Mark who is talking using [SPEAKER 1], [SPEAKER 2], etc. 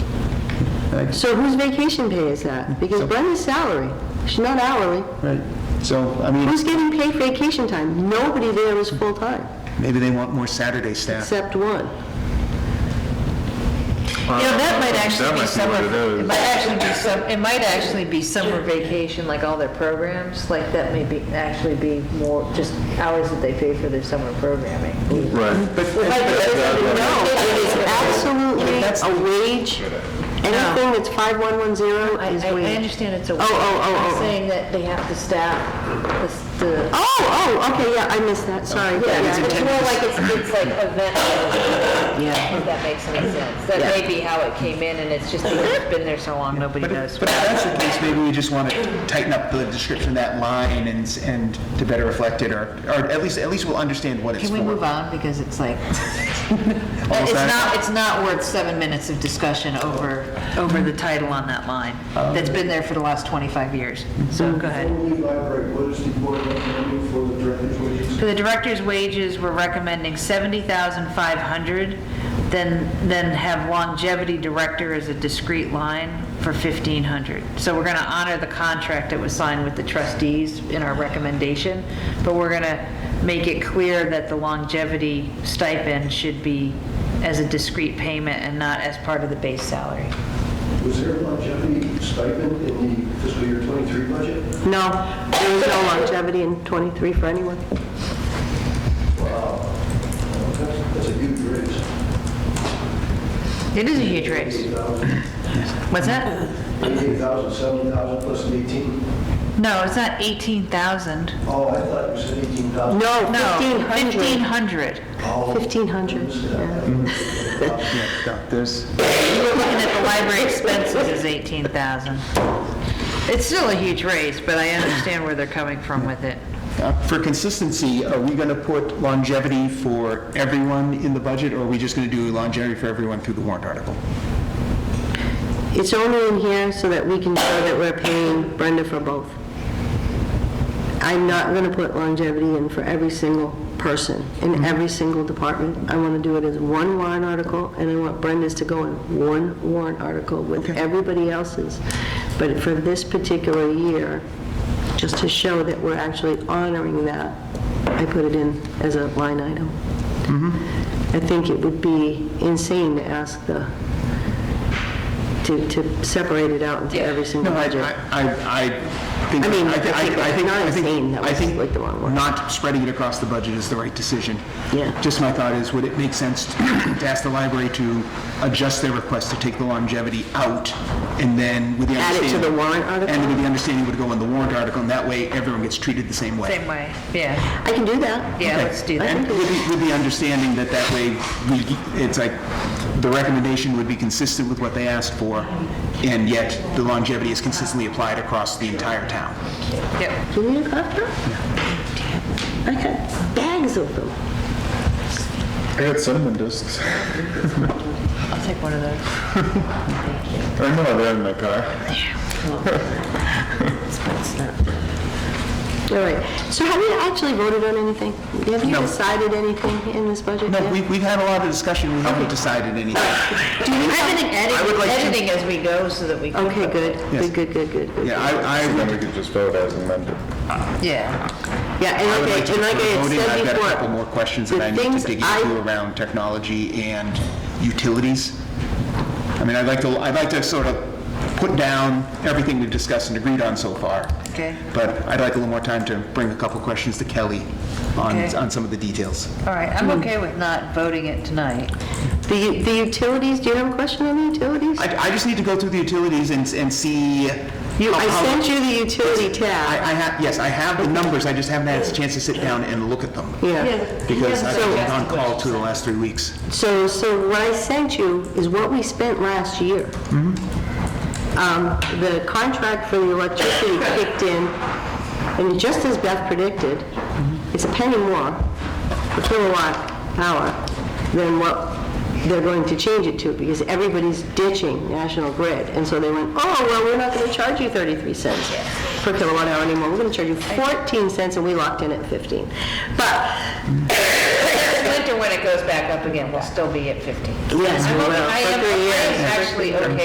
[SPEAKER 1] Right.
[SPEAKER 2] So whose vacation pay is
[SPEAKER 3] Mm-hmm.
[SPEAKER 2] that? Because
[SPEAKER 1] So-
[SPEAKER 2] Brenda's salary, she's not hourly.
[SPEAKER 1] Right, so, I mean,
[SPEAKER 2] Who's getting paid vacation time? Nobody there is full-time,
[SPEAKER 1] maybe they want more Saturday staff.
[SPEAKER 2] except one.
[SPEAKER 3] You know, that might actually be
[SPEAKER 4] That
[SPEAKER 3] summer,
[SPEAKER 4] might be what it
[SPEAKER 3] it
[SPEAKER 4] is.
[SPEAKER 3] might actually be some, it might actually be summer vacation, like all their programs, like that may be, actually be more, just hours that they pay for their summer programming.
[SPEAKER 4] Right.
[SPEAKER 2] No, it is absolutely a wage. Anything that's
[SPEAKER 3] I,
[SPEAKER 2] 5110 is
[SPEAKER 3] I I
[SPEAKER 2] wage.
[SPEAKER 3] understand it's a.
[SPEAKER 2] oh, oh,
[SPEAKER 3] I'm
[SPEAKER 2] oh.
[SPEAKER 3] Saying that they have to staff the, s- the.
[SPEAKER 2] Oh, oh, okay, yeah, I missed that, sorry.
[SPEAKER 3] Yeah, it's
[SPEAKER 2] Yeah.
[SPEAKER 3] more like it's, it's like event, if that makes any sense. That may be how it came in, and it's just, because it's been there so long, nobody
[SPEAKER 1] But
[SPEAKER 3] knows.
[SPEAKER 1] if but if that's the case, maybe we just want to tighten up the description of that line and, s- and to better reflect it, or, or at least, at least we'll understand what it's
[SPEAKER 3] Can
[SPEAKER 1] for.
[SPEAKER 3] we move on, because it's like,
[SPEAKER 1] Almost
[SPEAKER 3] it's
[SPEAKER 1] done.
[SPEAKER 3] not, it's not worth seven minutes of discussion over, over the title on that line,
[SPEAKER 1] Um,
[SPEAKER 3] that's been there for the last 25 years, so go ahead.
[SPEAKER 5] Only library, what is the board recommending for the director's wages?
[SPEAKER 3] For the director's wages, we're recommending 70,500, then, then have longevity director as a discrete line for 1,500. So we're going to honor the contract that was signed with the trustees in our recommendation, but we're going to make it clear that the longevity stipend should be as a discrete payment and not as part of the base salary.
[SPEAKER 5] Was there a longevity stipend in the fiscal year 23 budget?
[SPEAKER 2] No, there was no longevity in 23 for anyone.
[SPEAKER 5] Wow, that's that's a huge raise.
[SPEAKER 3] It is a huge raise.
[SPEAKER 5] 88,000,
[SPEAKER 3] What's that?
[SPEAKER 5] 88,000, 7,000 plus an 18.
[SPEAKER 3] No, it's not 18,000.
[SPEAKER 5] Oh, I thought you said 18,000.
[SPEAKER 2] No,
[SPEAKER 3] No,
[SPEAKER 2] 1,500.
[SPEAKER 3] 1,500.
[SPEAKER 5] Oh,
[SPEAKER 2] 1,500,
[SPEAKER 5] yeah.
[SPEAKER 1] Yeah, no, there's,
[SPEAKER 3] We're looking at the library expenses is eighteen thousand. It's still a huge raise, but I understand where they're coming from with it.
[SPEAKER 1] uh, for consistency, are we going to put longevity for everyone in the budget, or are we just going to do longevity for everyone through the warrant article?
[SPEAKER 2] It's only in here so that we can show that we're paying Brenda for both. I'm not going to put longevity in for every single person, in every single department. I want to do it as one warrant article, and I want Brenda's to go in one warrant article with everybody else's. But for this particular year, just to show that we're actually honoring that, I put it in as a line item. I think it would be insane to ask the, to, to separate it out into every single
[SPEAKER 1] No, I,
[SPEAKER 2] budget.
[SPEAKER 1] I, I- I think.
[SPEAKER 2] I mean,
[SPEAKER 1] thi-
[SPEAKER 2] I think
[SPEAKER 1] I think-
[SPEAKER 2] not
[SPEAKER 1] I think-
[SPEAKER 2] insane, that
[SPEAKER 1] I
[SPEAKER 2] was
[SPEAKER 1] think
[SPEAKER 2] like the wrong word.
[SPEAKER 1] Not spreading it across the budget is the right decision.
[SPEAKER 2] Yeah.
[SPEAKER 1] Just my thought is, would it make sense to to ask the library to adjust their request to take the longevity out, and then with the
[SPEAKER 2] Add it
[SPEAKER 1] understanding...
[SPEAKER 2] to the warrant article?
[SPEAKER 1] And with the understanding it would go in the warrant article, and that way everyone gets treated the same way.
[SPEAKER 3] Same way, yeah,
[SPEAKER 2] I can do that.
[SPEAKER 3] yeah,
[SPEAKER 1] Okay.
[SPEAKER 3] let's do
[SPEAKER 1] And
[SPEAKER 3] that.
[SPEAKER 1] with the, with the understanding that that way, we, it's like, the recommendation would be consistent with what they asked for, and yet the longevity is consistently applied across the entire town.
[SPEAKER 3] Yep.
[SPEAKER 2] Do you need a coffee? I got bags of them.
[SPEAKER 4] I got cinnamon discs.
[SPEAKER 3] I'll take one of those.
[SPEAKER 4] I know they're in my car.
[SPEAKER 2] All right. So have you actually voted on anything? Have you
[SPEAKER 1] No.
[SPEAKER 2] decided anything in this budget?
[SPEAKER 1] No,
[SPEAKER 2] yet?
[SPEAKER 1] we, we've had a lot of discussion, we haven't decided anything.
[SPEAKER 2] Do you have any
[SPEAKER 1] I would like to-
[SPEAKER 3] Editing as we go so that we. can-
[SPEAKER 2] Okay, good,
[SPEAKER 1] Yes.
[SPEAKER 2] good, good, good, good, good.
[SPEAKER 1] Yeah, I, I
[SPEAKER 4] Then
[SPEAKER 1] would,
[SPEAKER 4] we could just vote as amended.
[SPEAKER 3] Yeah,
[SPEAKER 2] Yeah, and
[SPEAKER 1] I would like
[SPEAKER 2] like
[SPEAKER 1] to
[SPEAKER 2] I, and
[SPEAKER 1] defer
[SPEAKER 2] like I
[SPEAKER 1] voting, I've
[SPEAKER 2] had
[SPEAKER 1] got a
[SPEAKER 2] said
[SPEAKER 1] couple
[SPEAKER 2] before,
[SPEAKER 1] more questions
[SPEAKER 2] the
[SPEAKER 1] that I need
[SPEAKER 2] things
[SPEAKER 1] to dig
[SPEAKER 2] I-
[SPEAKER 1] into around technology and utilities. I mean, I'd like to, I'd like to sort of put down everything we've discussed and agreed on so far.
[SPEAKER 3] Okay.
[SPEAKER 1] But I'd like a little more time to bring a couple questions to Kelly on,
[SPEAKER 3] Okay.
[SPEAKER 1] on some of the details.
[SPEAKER 3] all right, I'm okay with not voting it tonight.
[SPEAKER 2] the u- the utilities, do you have a question on the utilities?
[SPEAKER 1] I, I just need to go through the utilities and, and see.
[SPEAKER 2] You-
[SPEAKER 1] how-
[SPEAKER 2] I
[SPEAKER 1] how-
[SPEAKER 2] sent you the utility
[SPEAKER 1] I,
[SPEAKER 2] tab.
[SPEAKER 1] I have, yes, I have the numbers, I just haven't had a chance to sit down and look at them.
[SPEAKER 2] Yeah.
[SPEAKER 1] Because I've been on call two of the last three weeks.
[SPEAKER 2] So, so what I sent you is what we spent last year. Um, The contract for the electricity kicked in, and just as Beth predicted, it's a penny more per kilowatt hour than what they're going to change it to, because everybody's ditching National Grid. And so they went, oh, well, we're not going to charge you 33 cents per kilowatt hour anymore, we're going to charge you 14 cents, and we locked in at 15. But
[SPEAKER 3] Winter, when it goes back up again, we'll still be at 50.
[SPEAKER 2] Yes,
[SPEAKER 3] I'm
[SPEAKER 2] we
[SPEAKER 3] okay-
[SPEAKER 2] will,
[SPEAKER 3] I
[SPEAKER 2] for
[SPEAKER 3] am
[SPEAKER 2] three
[SPEAKER 3] I am
[SPEAKER 2] years.
[SPEAKER 3] actually okay